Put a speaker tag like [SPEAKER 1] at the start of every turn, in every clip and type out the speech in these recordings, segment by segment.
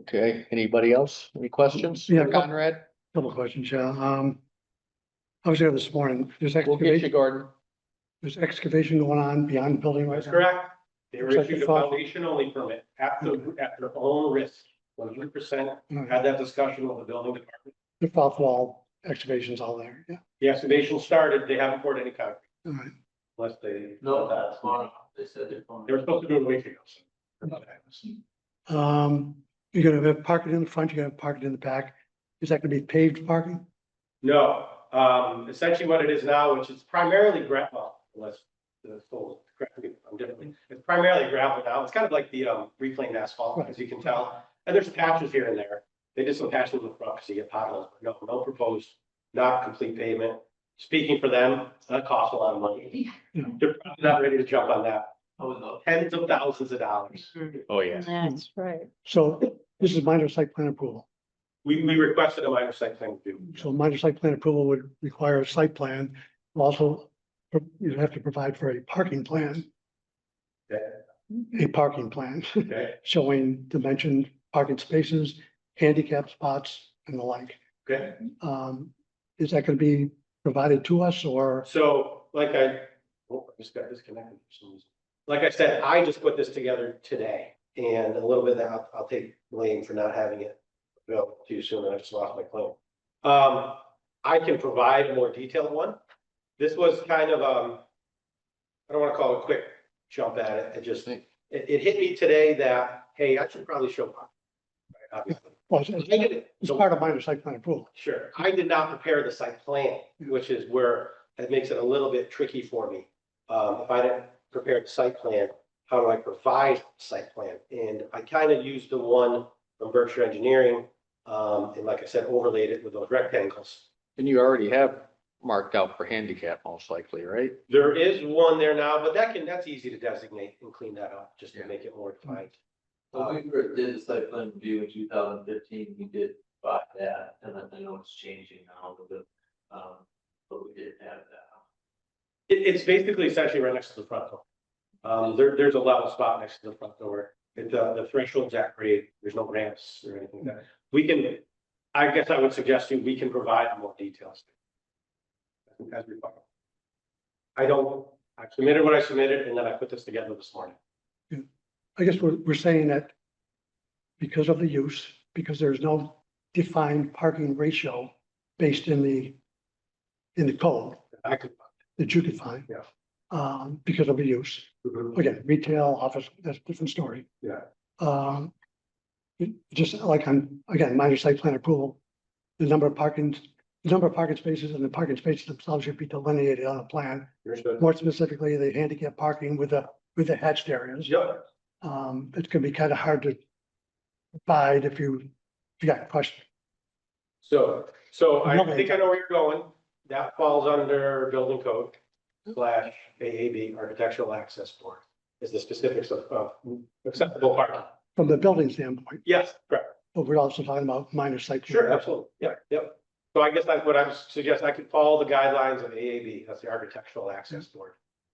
[SPEAKER 1] Okay, anybody else? Any questions?
[SPEAKER 2] Yeah.
[SPEAKER 1] Conrad,
[SPEAKER 2] Couple of questions, yeah. Um, I was there this morning. There's
[SPEAKER 1] we'll get you,
[SPEAKER 2] excavation,
[SPEAKER 1] Gordon.
[SPEAKER 2] there's excavation going on beyond the building right
[SPEAKER 3] That's
[SPEAKER 2] now.
[SPEAKER 3] correct. They were
[SPEAKER 2] Looks like
[SPEAKER 3] issued
[SPEAKER 2] the
[SPEAKER 3] a
[SPEAKER 2] thought-
[SPEAKER 3] foundation only permit at the, at their own risk, one hundred percent.
[SPEAKER 2] Correct.
[SPEAKER 3] Had that discussion with the building department.
[SPEAKER 2] The south wall excavation's all there, yeah.
[SPEAKER 3] The excavation started, they haven't poured any concrete
[SPEAKER 2] All right.
[SPEAKER 3] unless they.
[SPEAKER 4] No, that's tomorrow. They said they're going.
[SPEAKER 3] They were supposed to do it a week ago. so.
[SPEAKER 2] Um, you're gonna have parking in the front, you're gonna have parking in the back. Is that gonna be paved parking?
[SPEAKER 3] No, um, essentially what it is now, which is primarily gravel, unless the soul, I'm definitely, it's primarily gravel now. It's kind of like the, um, reclaimed asphalt, as you can tell. And there's patches here and there. They did some patches in the front because you get potholes, but no, no proposed, not complete pavement. Speaking for them, that costs a lot of money.
[SPEAKER 2] Yeah.
[SPEAKER 3] They're probably not ready to jump on that.
[SPEAKER 4] Oh, no.
[SPEAKER 3] Tens of thousands of dollars.
[SPEAKER 1] Oh, yeah.
[SPEAKER 5] That's right.
[SPEAKER 2] So this is minor site plan approval.
[SPEAKER 3] We, we requested a minor site plan review.
[SPEAKER 2] So minor site plan approval would require a site plan. Also, you'd have to provide for a parking plan. A parking plan
[SPEAKER 3] Okay,
[SPEAKER 2] showing dimensioned parking spaces, handicap spots and the like.
[SPEAKER 3] okay.
[SPEAKER 2] Um, is that gonna be provided to us or?
[SPEAKER 3] So like I, oh, I just got disconnected for some reason. Like I said, I just put this together today and a little bit that I'll, I'll take blame for not having it available too soon. and I just lost my claim. Um, I can provide a more detailed one. This was kind of, um, I don't want to call it a quick jump at it. It just, it, it hit me today that, hey, I should probably show. up. Right, obviously.
[SPEAKER 2] Well, it's-
[SPEAKER 3] I
[SPEAKER 2] it's
[SPEAKER 3] did it.
[SPEAKER 2] it's
[SPEAKER 3] So-
[SPEAKER 2] part of minor site plan approval.
[SPEAKER 3] Sure, I did not prepare the site plan, which is where that makes it a little bit tricky for me. Um, if I didn't prepare the site plan, how do I provide site plan? And I kind of used the one from Berkshire Engineering, um, and like I said, overlaid it with those rectangles.
[SPEAKER 1] And you already have marked out for handicap most likely, right?
[SPEAKER 3] There is one there now, but that can, that's easy to designate and clean that up, just to
[SPEAKER 1] Yeah.
[SPEAKER 3] make it more defined.
[SPEAKER 4] When we first did the site plan review in two thousand fifteen, we did buy that, and I- I know it's changing now a little bit. Um, but we did have that.
[SPEAKER 3] It, it's basically essentially right next to the front door. Um, there, there's a level spot next to the front door. It, uh, the threshold's at grade. There's no ramps or anything like that. We can, I guess I would suggest you, we can provide more details. As required. I don't, I submitted what I submitted and then I put this together this morning.
[SPEAKER 2] I guess we're, we're saying that because of the use, because there's no defined parking ratio based in the, in the code
[SPEAKER 3] I could.
[SPEAKER 2] that you could find.
[SPEAKER 3] Yeah.
[SPEAKER 2] Um, because of the use, again, retail, office, that's a different story.
[SPEAKER 3] Yeah.
[SPEAKER 2] Um, it- just like on, again, minor site plan approval, the number of parking, the number of parking spaces and the parking spaces themselves should be delineated on a plan.
[SPEAKER 3] Understood.
[SPEAKER 2] More specifically, the handicap parking with the, with the hatched areas
[SPEAKER 3] Yep.
[SPEAKER 2] um, it's gonna be kind of hard to provide if you, if you got questions.
[SPEAKER 3] So, so I think I know where you're going. That falls under building code slash AAB, architectural access board, is the specifics of, of acceptable parking.
[SPEAKER 2] from the building standpoint,
[SPEAKER 3] Yes, correct.
[SPEAKER 2] but we're also talking about minor site.
[SPEAKER 3] Sure, absolutely. Yeah, yep. So I guess that's what I would suggest. I could follow the guidelines of AAB. That's the architectural access board,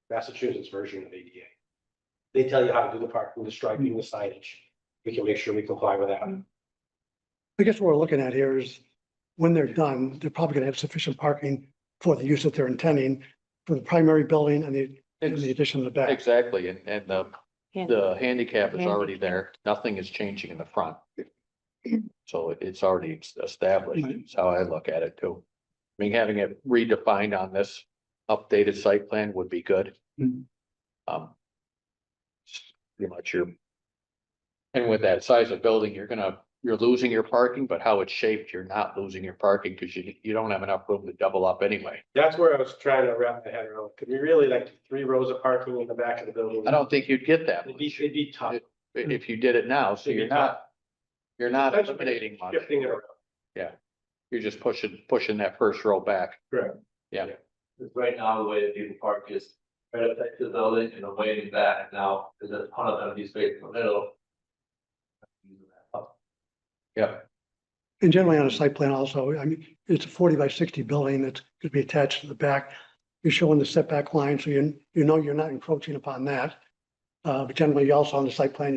[SPEAKER 3] Massachusetts version of ADA. They tell you how to do the parking, the striping, the signage. We can make sure we comply with that.
[SPEAKER 2] I guess what we're looking at here is when they're done, they're probably gonna have sufficient parking for the use that they're intending for the primary building and the, and the addition of the back.
[SPEAKER 1] Exactly, and, and the, the handicap is already there. Nothing is changing in the front. So it- it's already established. That's how I look at it too. I mean, having it redefined on this updated site plan would be good.
[SPEAKER 3] Mm-hmm.
[SPEAKER 2] Mhm.
[SPEAKER 1] Um. it's Pretty much your. And with that size of building, you're gonna, you're losing your parking, but how it's shaped, you're not losing your parking because you, you don't have enough room to double up anyway.
[SPEAKER 3] That's where I was trying to wrap my head around. Could we really like three rows of parking in the back of the building?
[SPEAKER 1] I don't think you'd get that
[SPEAKER 3] It'd be,
[SPEAKER 1] much
[SPEAKER 3] it'd be tough.
[SPEAKER 1] if you did it now, so
[SPEAKER 3] It'd be
[SPEAKER 1] Hmm. you're not, you're not eliminating much.
[SPEAKER 3] Shifting it around.
[SPEAKER 1] You're just pushing, pushing that first row back.
[SPEAKER 4] Because right now, the way that people park is right up next to the building and away in back now, there's a ton of empty space in the middle.
[SPEAKER 1] Yeah.
[SPEAKER 2] And generally on a site plan also, I mean, it's a forty by sixty building that's gonna be attached to the back. You're showing the setback line, so you, you know you're not encroaching upon that. Uh, but generally also on the site plan,